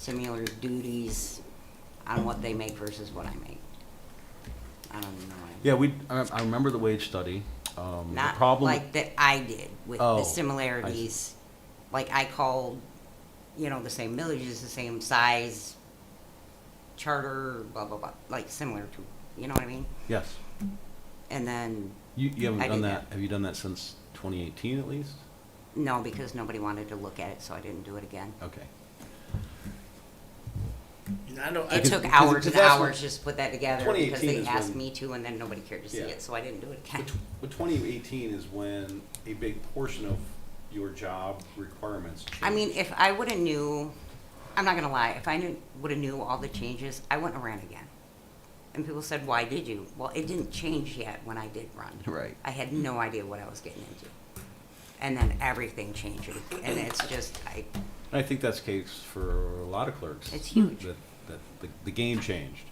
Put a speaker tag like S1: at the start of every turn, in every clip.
S1: similar duties on what they make versus what I make. I don't even know. what I-
S2: Yeah, we, I, I remember the wage study. Um, the
S1: Not
S2: problem,
S1: like that I did with
S2: Oh, I
S1: the
S2: see.
S1: similarities. Like I called, you know, the same villages, the same size, charter, blah, blah, blah, like similar to, you know what I mean?
S2: yes.
S1: And then,
S2: You, you haven't
S1: I
S2: done
S1: did
S2: that,
S1: that.
S2: have you done that since 2018 at least?
S1: no, because nobody wanted to look at it, so I didn't do it again.
S2: Okay.
S3: And I don't. I
S1: It
S3: just-
S1: took
S3: because-
S1: hours
S3: because
S1: and
S3: that's when-
S1: hours just to put that together because
S2: 2018
S1: they
S2: is
S1: asked
S2: when-
S1: me to and then nobody cared to see
S2: Yeah.
S1: it, so I didn't do it again.
S2: But, tw- but 2018 is when a big portion of your job requirements change.
S1: I mean, if I would have knew, I'm not gonna lie, if I knew, would have knew all the changes, I wouldn't have ran again. And people said, why did you? Well, it didn't change yet when I did run.
S2: Right.
S1: I had no idea what I was getting into. And then everything changes, and it's just, I,
S2: I think that's the case for a lot of clerks.
S1: It's huge.
S2: That, that the, the game changed.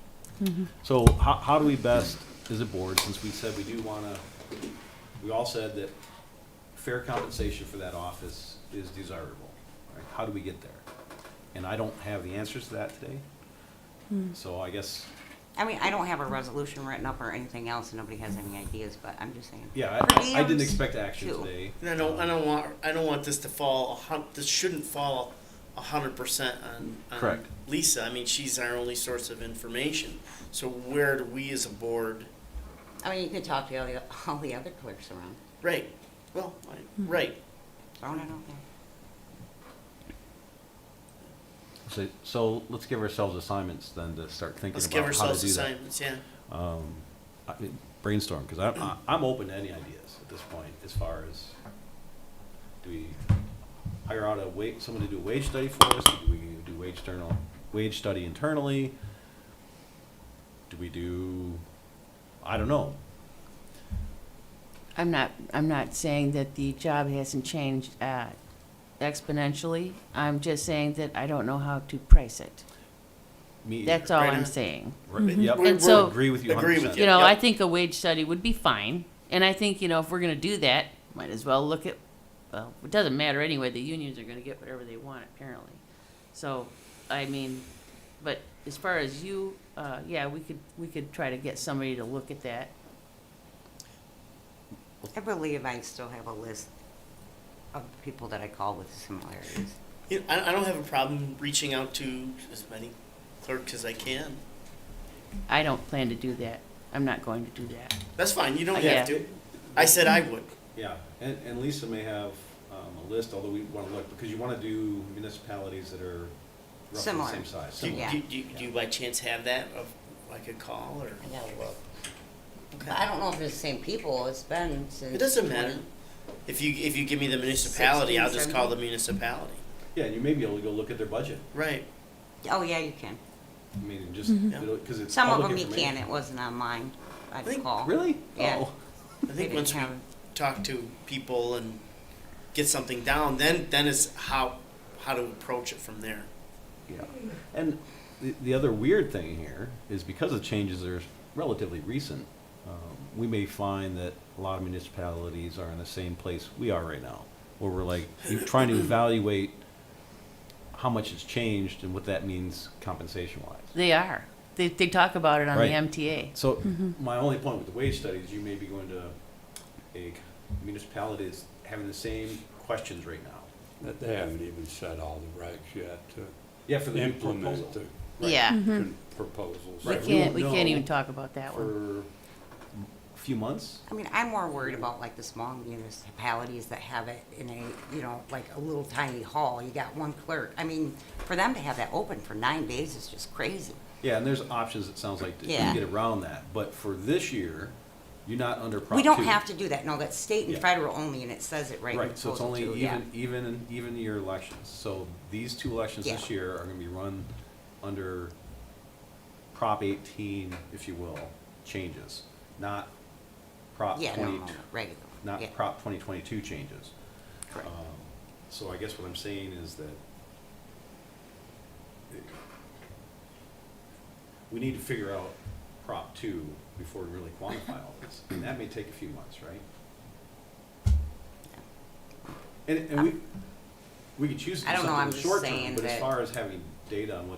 S2: So how, how do we best, as a board, since we said we do wanna, we all said that fair compensation for that office is desirable, right? How do we get there? And I don't have the answers to that today. So I guess,
S1: I mean, I don't have a resolution written up or anything else, and nobody has any ideas, but I'm just saying.
S2: yeah, I-
S1: Per
S2: I, I didn't
S1: diems,
S2: expect action
S1: too.
S2: today. Um,
S3: And I don't, I don't want, I don't want this to fall, a hun, this shouldn't fall a hundred percent on, on
S2: Correct.
S3: Lisa. I mean, she's our only source of information. So where do we as a board,
S1: I mean, you could talk to all the, all the other clerks around,
S3: right, well, I-
S1: Hmm.
S3: right,
S1: throwing it out there.
S2: So, so let's give ourselves assignments then to start thinking
S3: let's give
S2: about how to
S3: ourselves
S2: do that.
S3: assignments, yeah.
S2: um, I- brainstorm because I'm I- I'm open to any ideas at this point as far as do we hire out a wait someone to do a wage study for us? Do we do wage internal wage study internally? Do we do? I don't know.
S4: I'm not, I'm not saying that the job hasn't changed uh, exponentially. I'm just saying that I don't know how to price it.
S2: Me,
S4: That's
S2: either.
S4: all
S3: Right
S4: I'm
S3: on.
S4: saying.
S2: Right, yep.
S3: We're-
S4: And
S3: we're-
S4: so-
S2: agree with you.
S3: Mm-hmm. Agree
S2: 100%.
S3: with
S4: You know, I
S3: Yep.
S4: think a wage study would be fine, and I think, you know, if we're gonna do that, might as well look at, well, it doesn't matter anyway, the unions are gonna get whatever they want apparently. So, I mean, but as far as you, uh, yeah, we could, we could try to get somebody to look at that.
S1: I believe I still have a list of people that I call with similarities.
S3: You know, I, I don't have a problem reaching out to as many clerks as I can.
S4: I don't plan to do that. I'm not going to do that.
S3: That's fine, you don't
S4: Yeah.
S3: have to. I said I would.
S2: Yeah, and, and Lisa may have um, a list, although we want to look because you want to do municipalities that are roughly
S1: Similar.
S2: the same size.
S3: Do,
S2: Similar.
S1: Yeah.
S3: do, do, do you by chance have that of, like a call or?
S1: I gotta look.
S3: Okay.
S1: But I don't know if it's the same people, it's been since.
S3: It doesn't
S1: 20
S3: matter. If you, if you give me the municipality, I'll just call the
S1: 16,
S3: municipality.
S2: Yeah, and you may be able to go look at their budget.
S3: Right.
S1: Oh, yeah, you can.
S2: I mean, and just because it's
S1: Some of
S2: public
S1: them you can,
S2: information.
S1: it wasn't online, I
S3: Really?
S1: recall.
S2: Really?
S1: Yeah.
S2: Oh.
S1: They
S3: I think
S1: didn't
S3: once we
S1: have,
S3: talk to people and get something down, then, then it's how, how to approach it from there.
S2: Yeah. And the, the other weird thing here is because the changes are relatively recent, um, we may find that a lot of municipalities are in the same place we are right now, where we're like e- trying to evaluate how much has changed and what that means compensation wise.
S4: They are. They, they talk about it on
S2: Right.
S4: the MTA.
S2: So my only point with the wage studies, you may be going to a municipality that's having the same questions right now.
S5: That they haven't even set all the regs yet to
S2: Yeah, for the new
S5: implement
S2: proposal.
S5: the
S2: Right.
S4: Yeah.
S5: con- proposals.
S4: We
S2: Right.
S4: can't, we
S2: No.
S4: can't even talk about that one.
S2: for a few months.
S1: I mean, I'm more worried about like the small municipalities that have it in a, you know, like a little tiny hall, you got one clerk. I mean, for them to have that open for nine days is just crazy.
S2: Yeah, and there's options, it sounds like, to
S1: Yeah.
S2: get around that, but for this year, you're not under Prop
S1: We don't
S2: 2.
S1: have to do that, no, that's state and
S2: Yeah.
S1: federal only, and it says it right in
S2: Right, so it's
S1: proposal
S2: only
S1: two, yeah.
S2: even, even, even year elections, so these two elections this
S1: Yeah.
S2: year are gonna be run under Prop eighteen, if you will, changes, not Prop
S1: Yeah, no,
S2: twenty,
S1: no, regular.
S2: not
S1: yeah,
S2: Prop twenty twenty-two changes.
S1: correct.
S2: Um, So I guess what I'm saying is that we need to figure out Prop two before we really quantify all this. And that may take a few months, right? And, and we, we could choose to
S1: I
S2: do
S1: don't know,
S2: something in
S1: I'm
S2: the
S1: just
S2: short
S1: saying
S2: term, but as
S1: that-
S2: far as having data on what